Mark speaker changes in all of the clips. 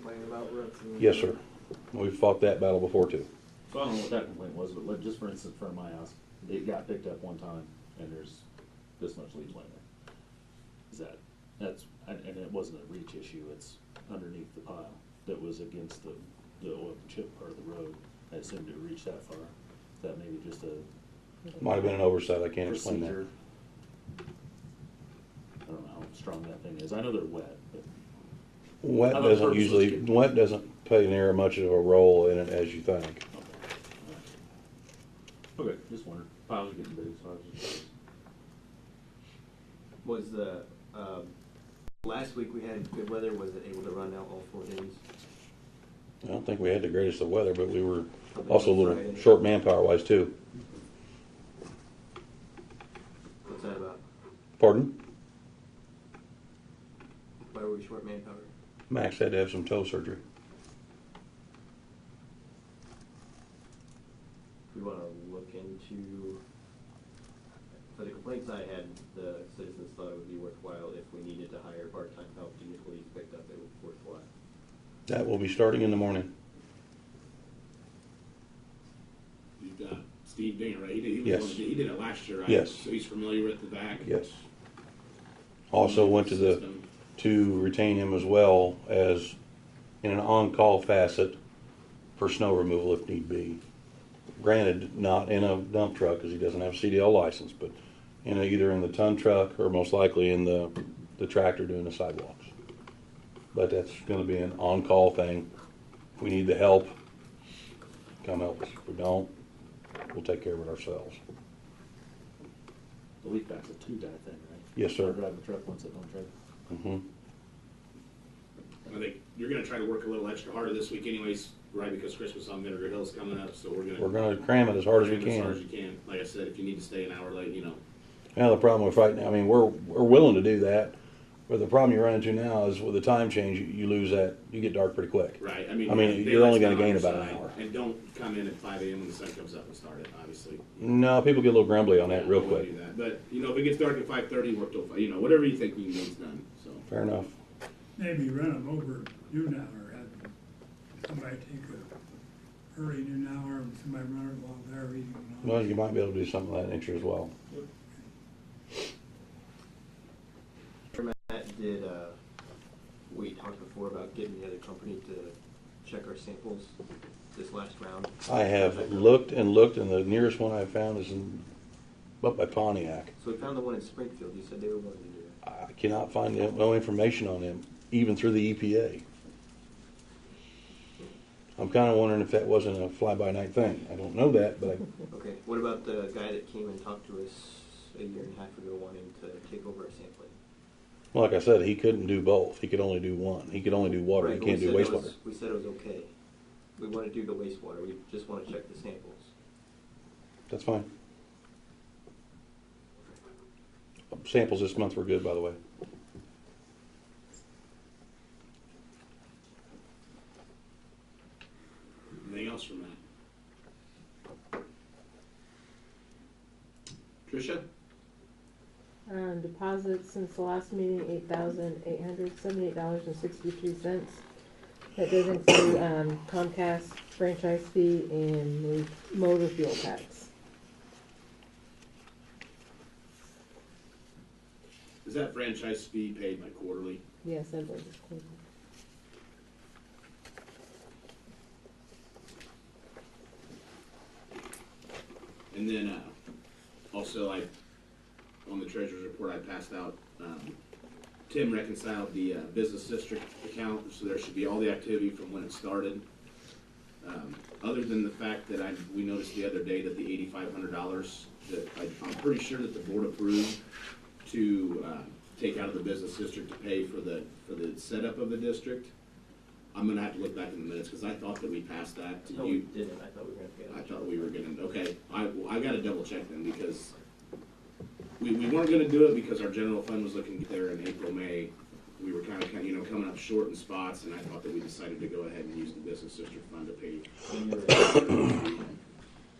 Speaker 1: complaint about roads. and-
Speaker 2: Yes, sir. We've fought that battle before too.
Speaker 3: So I don't know what that complaint was, but let, just for instance, for my house, it got picked up one time and there's this much leaves laying there. Is that, that's, and, and it wasn't a reach issue, it's underneath the pile that was against the, the oil chip part of the road. I assumed it reached that far. Is that maybe just a
Speaker 2: Might have been an oversight, I can't explain
Speaker 3: procedure?
Speaker 2: that.
Speaker 3: I don't know how strong that thing is. I know they're wet, but
Speaker 2: Wet
Speaker 3: Other
Speaker 2: doesn't
Speaker 3: purposes
Speaker 2: usually,
Speaker 3: get-
Speaker 2: wet doesn't play near much of a role in it as you think.
Speaker 3: okay, just wondered. Piles are getting big, so I was just.
Speaker 1: Was the, um, last week we had good weather, was it able to run out all four days?
Speaker 2: I don't think we had the greatest of weather, but we were also a little short manpower wise too.
Speaker 1: What's that about?
Speaker 2: Pardon?
Speaker 1: Why were we short manpower?
Speaker 2: Max had to have some toe surgery.
Speaker 1: We wanna look into, for the complaints I had, the citizens thought it would be worthwhile if we needed to hire part-time help to get leaves picked up, it would be worthwhile.
Speaker 2: That will be starting in the morning.
Speaker 4: You've got Steve Dinger, right? He did, he, was
Speaker 2: Yes.
Speaker 4: one of the- he did it last year, right?
Speaker 2: Yes.
Speaker 4: So he's familiar with the back.
Speaker 2: Yes. Also went to the,
Speaker 4: System.
Speaker 2: to retain him as well as in an on-call facet for snow removal if need be. Granted, not in a dump truck because he doesn't have a CDL license, but in a, either in the ton truck or most likely in the, the tractor doing the sidewalks. But that's gonna be an on-call thing. If we need the help, come help us. If we don't, we'll take care of it ourselves.
Speaker 3: The leak back's a two-guy thing, right?
Speaker 2: Yes, sir.
Speaker 3: I drive a truck once, I don't drive.
Speaker 2: Mhm.
Speaker 4: I think you're going to try to work a little extra harder this week, anyways, right? Because Christmas on Vinegar Hill's coming up, so we're going to
Speaker 2: We're gonna cram it as hard as we
Speaker 4: as hard as
Speaker 2: can.
Speaker 4: you can. Like I said, if you need to stay an hour late, you know,
Speaker 2: Now, the problem with right now, I mean, we're, we're willing to do that, but the problem you run into now is with the time change, you, you lose that, you get dark pretty quick.
Speaker 4: right? I mean,
Speaker 2: I mean,
Speaker 4: they
Speaker 2: you're only
Speaker 4: rest
Speaker 2: gonna
Speaker 4: on
Speaker 2: gain
Speaker 4: your
Speaker 2: about an
Speaker 4: side.
Speaker 2: hour.
Speaker 4: And don't come in at 5 a.m. when the sun comes up and start it, obviously.
Speaker 2: No, people get a little grumbly on that real
Speaker 4: Don't wanna
Speaker 2: quick.
Speaker 4: do that. But you know, if it gets dark at 5:30, work till 5. You know, whatever you think we can get's done. So
Speaker 2: Fair enough.
Speaker 5: Maybe run them over noon hour, have somebody take a early noon hour and somebody run it while they're eating. and all.
Speaker 2: Well, you might be able to do something of that nature as well.
Speaker 1: Matt, did, uh, we talked before about getting the other company to check our samples this last round?
Speaker 2: I have looked and looked, and the nearest one I found is in, up by Pontiac.
Speaker 1: So we found the one in Springfield, you said they were willing to do that.
Speaker 2: I cannot find no- no information on him, even through the E EPA. I'm kinda wondering if that wasn't a fly-by-night thing. I don't know that, but I
Speaker 1: Okay, what about the guy that came and talked to us a year and a half ago wanting to take over our sampling?
Speaker 2: Well, Like I said, he couldn't do both. He could only do one. He could only do water.
Speaker 1: Right,
Speaker 2: he
Speaker 1: but we
Speaker 2: can't do
Speaker 1: said that
Speaker 2: wastewater.
Speaker 1: was- We said it was okay. We want to do the wastewater, we just want to check the samples.
Speaker 2: That's fine. Samples this month were good, by the way.
Speaker 4: anything else from that? Trisha.
Speaker 6: Um, deposits since the last meeting, eight thousand eight hundred seventy-eight dollars and sixty-three cents. That does include, um, Comcast franchise fee and the motor fuel tax.
Speaker 4: Is that franchise fee paid by quarterly?
Speaker 6: Yes, I believe it's included.
Speaker 4: And then, uh, also I, on the treasurer's report, I passed out, um, Tim reconciled the, uh, business district account, so there should be all the activity from when it started. Um, other than the fact that I, we noticed the other day that the eighty-five hundred dollars that I, I'm pretty sure that the board approved to, uh, take out of the business district to pay for the, for the setup of the district. I'm gonna have to look back in the minutes, cause I thought that we passed that to you.
Speaker 1: No, we didn't, I thought we were going to
Speaker 4: I
Speaker 1: pay it.
Speaker 4: thought we were gonna, okay, I, well, I gotta double check then, because we, we weren't gonna do it because our general fund was looking there in April, May. We were kinda, kinda, you know, coming up short in spots, and I thought that we decided to go ahead and use the business district fund to pay.
Speaker 1: Maybe you're right.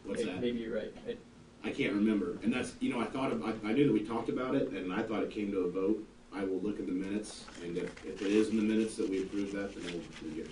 Speaker 4: What's
Speaker 1: May-
Speaker 4: that?
Speaker 1: Maybe you're right. I-
Speaker 4: I can't remember, and that's, you know, I thought, of- I, I knew that we talked about it, and I thought it came to a vote. I will look at the minutes, and if, if it is in the minutes that we approved that, then we'll, we'll get